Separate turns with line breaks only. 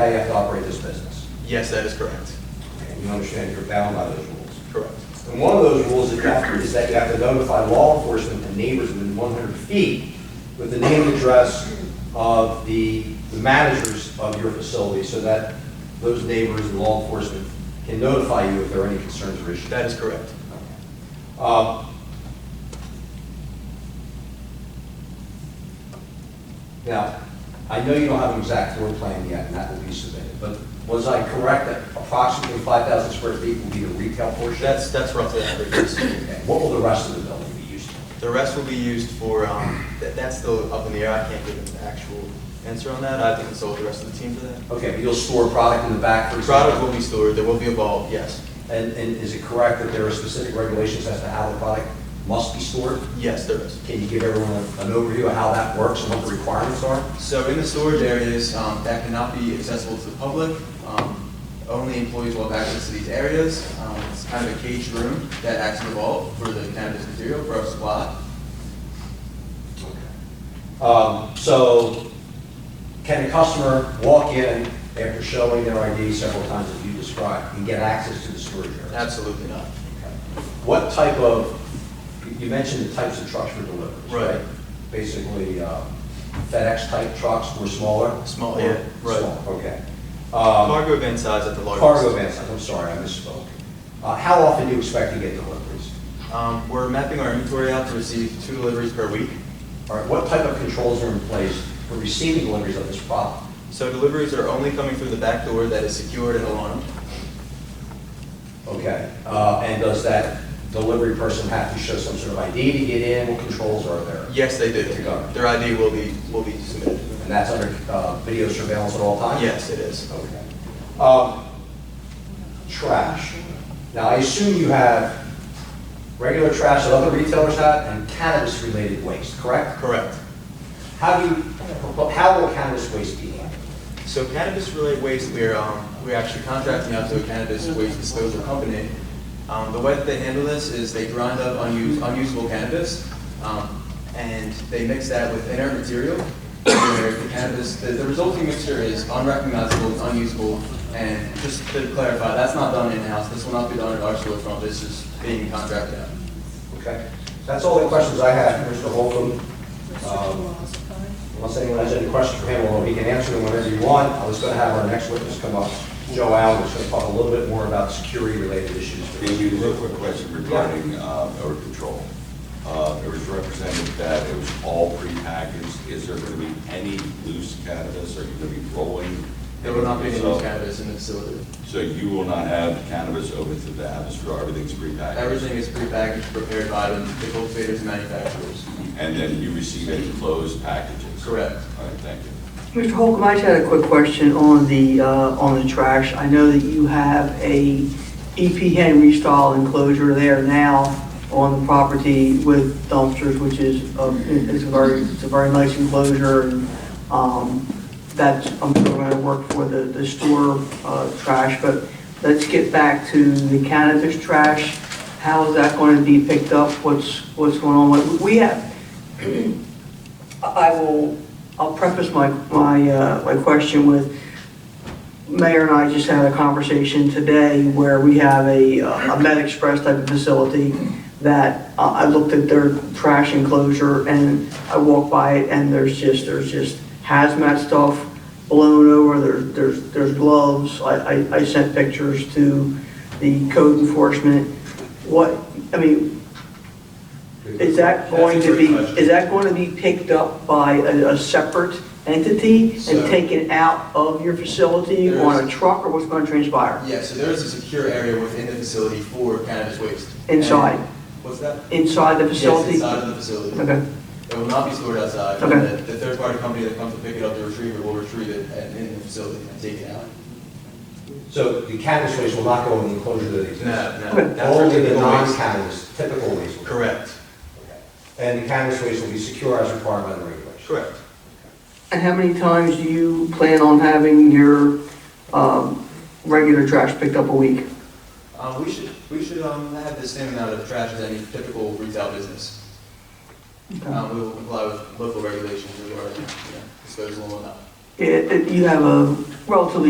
how you have to operate this business.
Yes, that is correct.
And you understand you're bound by those rules.
Correct.
And one of those rules that you have to- is that you have to notify law enforcement and neighbors within 100 feet with the name and address of the the managers of your facility so that those neighbors and law enforcement can notify you if there are any concerns or issues.
That is correct.
Uh, Now, I know you don't have an exact floor plan yet, and that will be submitted, but was I correct that approximately 5,000 square feet will be the retail portion?
That's, that's roughly average. yes.
Okay, What will the rest of the building be used for?
The rest will be used for, um, that, that's still up in the air. I can't give an actual answer on that. I have to consult the rest of the team for that.
Okay, but you'll store product in the back, for example?
Product will be stored, there will be a bulb, yes.
And, and is it correct that there are specific regulations as to how the product must be stored?
Yes, there is.
Can you give everyone an overview of how that works and what the requirements are?
So in the storage areas, um, that cannot be accessible to the public. Um, Only employees will have access to these areas. Um, It's kind of a caged room that acts as a vault for the cannabis material for our supply.
Um, So can a customer walk in after showing their ID several times as you described and get access to the storage area?
Absolutely not.
What type of, you mentioned the types of trucks for deliveries,
Right.
right? Basically um, FedEx-type trucks or smaller?
Small,
Or-
yeah, right.
small, Okay. Um,
Cargo van size at the largest.
Cargo vans, I'm sorry, I misspoke. Uh, How often do you expect to get deliveries?
Um, We're mapping our inventory out to receive two deliveries per week.
All right, what type of controls are in place for receiving deliveries of this product?
So deliveries are only coming through the back door that is secured and alarmed.
Okay, uh, and does that delivery person have to show some sort of ID to get in? What controls are there?
Yes, they do.
You got it.
Their ID will be, will be submitted.
And that's under uh, video surveillance at all times?
Yes, it is.
Okay. Um, Trash. Now, I assume you have regular trash that other retailers have and cannabis-related waste, correct?
Correct.
How do you, how will cannabis waste be handled?
So cannabis-related waste, we're, um, we're actually contracting out to a cannabis waste disposal company. Um, the way that they handle this is they grind up unused, unusable cannabis, um, and they mix that with inert material. where The cannabis, the, the resulting material is unrecognizable, unusable, and just to clarify, that's not done in-house. This will not be done at our storefront. This is being contracted out.
Okay, that's all the questions I have, Mr. Holcomb. Um,
Mr.
Unless anyone has any questions for him, although he can answer them whenever you want, I was going to have our next witness come up, Joe Allen, who's going to talk a little bit more about security-related issues.
Can you, real quick question regarding uh, odor control. Uh, It was represented that it was all prepackaged. Is there going to be any loose cannabis? Are you going to be rolling?
There will not be any
So-
loose cannabis in the facility.
So you will not have cannabis open to the atmosphere, everything's prepackaged?
Everything is prepackaged, prepared by the the cultivators and manufacturers.
And then you receive it in closed packages?
Correct.
All right, thank you.
Holcomb, I just had a quick question on the, uh, on the trash. I know that you have a E EP Henry style enclosure there now on the property with dumpsters, which is, uh, it's a very, it's a very nice enclosure. and um, That's, I'm sure going to work for the, the store uh, trash, but let's get back to the cannabis trash. How is that going to be picked up? What's, what's going on? with- We have, I will, I'll preface my, my, uh, my question with, Mayor and I just had a conversation today where we have a, uh, a Med Express type of facility that uh, I looked at their trash enclosure and I walked by it and there's just, there's just hazmat stuff blown over, there, there's, there's gloves. I, I, I sent pictures to the code enforcement. What, I mean, is that
That's a
going to
great
be,
question.
is that going to be picked up by a, a separate entity
So-
and taken out of your facility
There
on a
is-
truck, or what's going to transpire
Yeah, so there is a secure area within the facility for cannabis waste.
Inside.
And- What's that?
inside the
Yes,
facility?
inside of the facility.
Okay,
It will not be stored outside.
Okay.
And The the third-party company that comes to pick it up to retrieve it will retrieve it and in the facility and take it out.
So the cannabis waste will not go in the enclosure that exists?
No, no.
Only the non-cannabis, typical waste? will go.
Correct.
Okay. And the cannabis waste will be secure as required by the regulations?
Correct.
and how many times do you plan on having your, um, regular trash picked up a week?
Uh, we should, we should, um, have the same amount of trash as any typical retail business.
Okay.
Um, we will comply with local regulations regarding, you know, disposal and whatnot.
It, it- you have a relatively